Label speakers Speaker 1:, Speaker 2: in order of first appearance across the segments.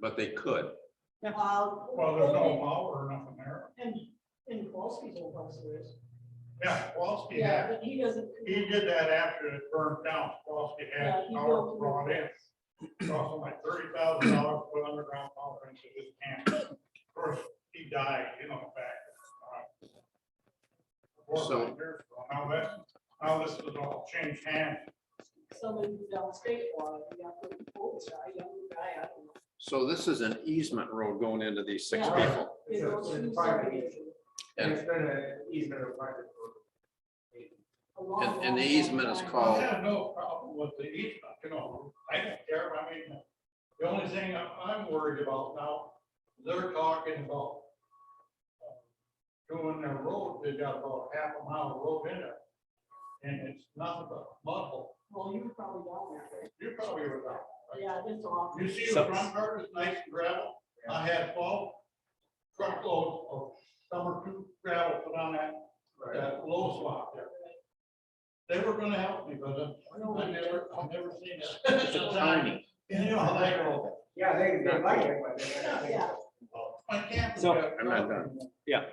Speaker 1: but they could.
Speaker 2: Well.
Speaker 3: Well, there's no power or nothing there.
Speaker 2: And, and Kowalski's old house there is.
Speaker 3: Yeah, Kowalski had,
Speaker 2: But he doesn't.
Speaker 3: he did that after it burned down. Kowalski
Speaker 2: Yeah,
Speaker 3: had
Speaker 2: he
Speaker 3: power
Speaker 2: built-
Speaker 3: brought in. Cost him like thirty thousand dollars to put underground power into his camp. Of course, he died, you know, back. uh, four or
Speaker 1: So-
Speaker 3: five years ago. Now that, now this has all changed hands.
Speaker 2: Somebody downstate wanted, you got the old guy, young guy, I don't know.
Speaker 1: So this is an easement road going into these six
Speaker 2: Yeah.
Speaker 1: people.
Speaker 2: They
Speaker 4: It's a-
Speaker 2: go
Speaker 4: it's a
Speaker 2: through
Speaker 4: private
Speaker 2: somebody
Speaker 4: And it's been an easement of private road.
Speaker 2: a long,
Speaker 1: And- and the
Speaker 2: long, long
Speaker 1: easement is
Speaker 2: time.
Speaker 3: I
Speaker 1: called-
Speaker 3: have no problem with the easement, you know, I don't care, I mean, the only thing I'm, I'm worried about now, they're talking about uh, doing their road, they got about half a mile of road in it, and it's nothing but mud hole.
Speaker 2: Well, you were probably down there, right?
Speaker 3: You probably were there.
Speaker 2: yeah, it's awful.
Speaker 3: You see the front part is nice and gravel, I had twelve truckloads of summer two gravel put on that,
Speaker 4: Right.
Speaker 3: that low spot there. They were gonna help me, but uh, I never, I've never seen it.
Speaker 1: It's a tiny.
Speaker 3: You know, how they roll.
Speaker 4: Yeah, they, they like it, but they don't think
Speaker 2: Yeah.
Speaker 3: My camp.
Speaker 5: So-
Speaker 1: I'm not done.
Speaker 2: Yeah.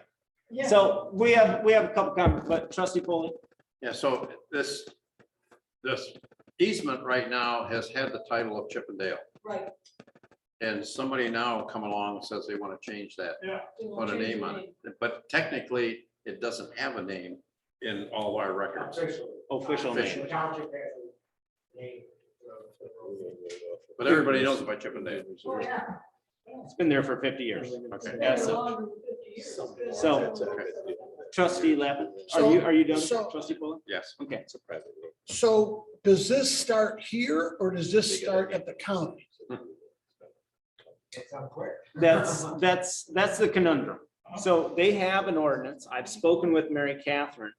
Speaker 5: So we have, we have a couple comments, but trustee Foley,
Speaker 1: Yeah, so this, this easement right now has had the title of Chippendale.
Speaker 2: Right.
Speaker 1: And somebody now come along and says they want to change that,
Speaker 2: they won't
Speaker 1: put a
Speaker 2: change
Speaker 1: name
Speaker 2: the
Speaker 1: on
Speaker 2: name.
Speaker 1: it. But technically, it doesn't have a name in all our records.
Speaker 4: Officially.
Speaker 5: official name.
Speaker 4: The township has a name.
Speaker 1: But everybody knows about Chippendale.
Speaker 2: Oh, yeah.
Speaker 5: It's been there for fifty years.
Speaker 1: Okay.
Speaker 5: Yeah,
Speaker 2: It's been
Speaker 5: so-
Speaker 2: longer than 50 years.
Speaker 6: So-
Speaker 2: It's been
Speaker 5: so-
Speaker 2: several-
Speaker 5: Trustee Lappin, are
Speaker 6: So-
Speaker 5: you, are you done,
Speaker 6: so-
Speaker 5: trustee Foley?
Speaker 1: Yes.
Speaker 5: Okay,
Speaker 6: So does this start here or does this start at the county?
Speaker 4: It's unclear.
Speaker 5: that's, that's, that's the conundrum. So they have an ordinance. I've spoken with Mary Catherine.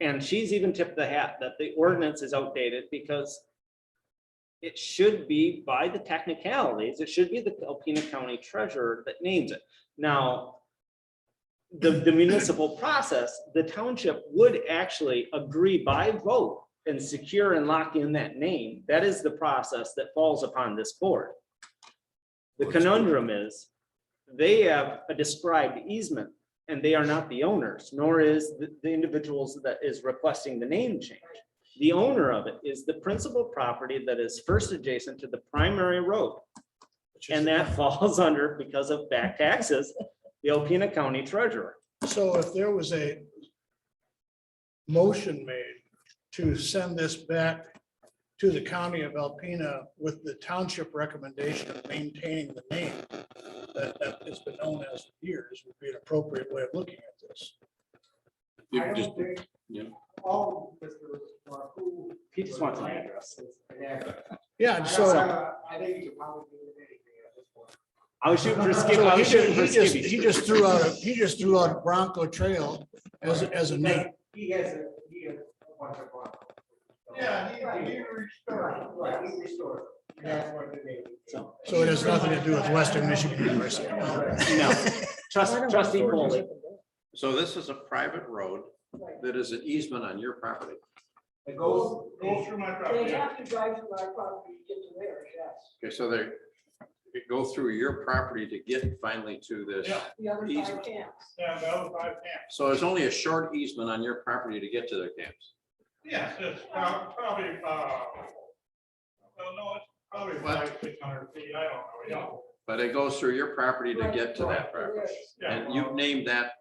Speaker 5: And she's even tipped the hat that the ordinance is outdated because it should be by the technicalities, it should be the Alpena County Treasurer that names it. Now, the, the municipal process, the township would actually agree by vote and secure and lock in that name. That is the process that falls upon this board. The conundrum is, they have a described easement and they are not the owners, nor is the, the individuals that is requesting the name change. The owner of it is the principal property that is first adjacent to the primary road. And that falls under, because of back taxes, the Alpena County Treasurer.
Speaker 6: So if there was a motion made to send this back to the county of Alpena with the township recommendation of maintaining the name that that has been known as years would be an appropriate way of looking at this.
Speaker 4: I don't think.
Speaker 1: yeah.
Speaker 4: All of Mr. Markku.
Speaker 5: He just wants an address.
Speaker 4: It's an address.
Speaker 6: Yeah,
Speaker 4: I
Speaker 6: and so.
Speaker 4: don't- I think you could probably do anything at this point.
Speaker 5: I was shooting for Skip,
Speaker 6: so
Speaker 5: I
Speaker 6: He
Speaker 5: was shooting
Speaker 6: just,
Speaker 5: for
Speaker 6: he just-
Speaker 5: Skibby.
Speaker 6: he just threw out, a- he just threw out Bronco Trail as, as a name.
Speaker 4: He has a, he has a bunch of. Broncos.
Speaker 3: Yeah, he, he restored.
Speaker 4: Right, right, he restored. it. That's what the name. is.
Speaker 5: So-
Speaker 6: So it has nothing to do with Western Michigan University.
Speaker 5: No, trust, trustee Foley,
Speaker 1: So this is a private road
Speaker 2: Right.
Speaker 1: that is an easement on your property.
Speaker 4: It goes,
Speaker 3: Go through my
Speaker 2: They
Speaker 3: property.
Speaker 2: have to drive through our property to get to there, yes.
Speaker 1: Okay, so they, they go through your property to get finally to this.
Speaker 3: Yeah.
Speaker 2: The other side
Speaker 1: Easement.
Speaker 2: can't.
Speaker 3: Yeah, that was my camp.
Speaker 1: So there's only a short easement on your property to get to their camps.
Speaker 3: Yes, it's prob- probably, uh, well, no, it's probably
Speaker 1: What?
Speaker 3: five, six hundred feet, I don't know, yeah.
Speaker 1: But it goes through your property to get to that property.
Speaker 3: yeah.
Speaker 1: And you've named that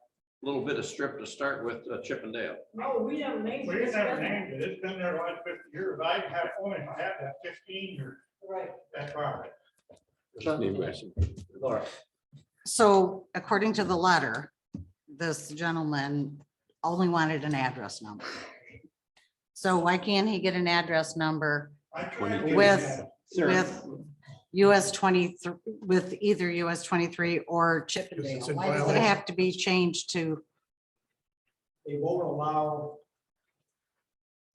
Speaker 1: little bit of strip to start with uh, Chippendale.
Speaker 2: No, Oh, we haven't named
Speaker 3: We
Speaker 2: it.
Speaker 3: just never named it, it's been there like fifty years, I have, only had that fifteen years,
Speaker 2: Right.
Speaker 3: that property.
Speaker 5: Laura.
Speaker 7: So according to the letter, this gentleman only wanted an address number. So why can't he get an address number
Speaker 3: I tried to-
Speaker 7: With-
Speaker 5: sir.
Speaker 7: with US twenty-three, with either US twenty-three or Chippendale?
Speaker 6: Because it's in
Speaker 7: Why does it
Speaker 6: violation.
Speaker 7: have to be changed to,
Speaker 4: they won't allow.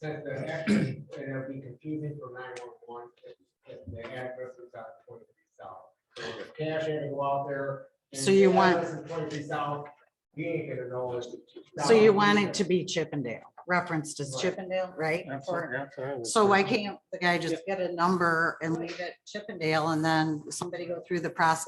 Speaker 4: That the address, it'll be confusing for nine one one, if, if the address is out twenty-three south. So if Cash had to go out there. and
Speaker 7: So you
Speaker 4: the
Speaker 7: want-
Speaker 4: address is Twenty-three south, he ain't gonna know. it's
Speaker 7: so you
Speaker 4: south.
Speaker 7: want it to be Chippendale? referenced as
Speaker 4: Right.
Speaker 7: Chippendale, right? Or- So
Speaker 8: So
Speaker 7: why can't the guy just get a number and leave it Chippendale and then somebody go through the process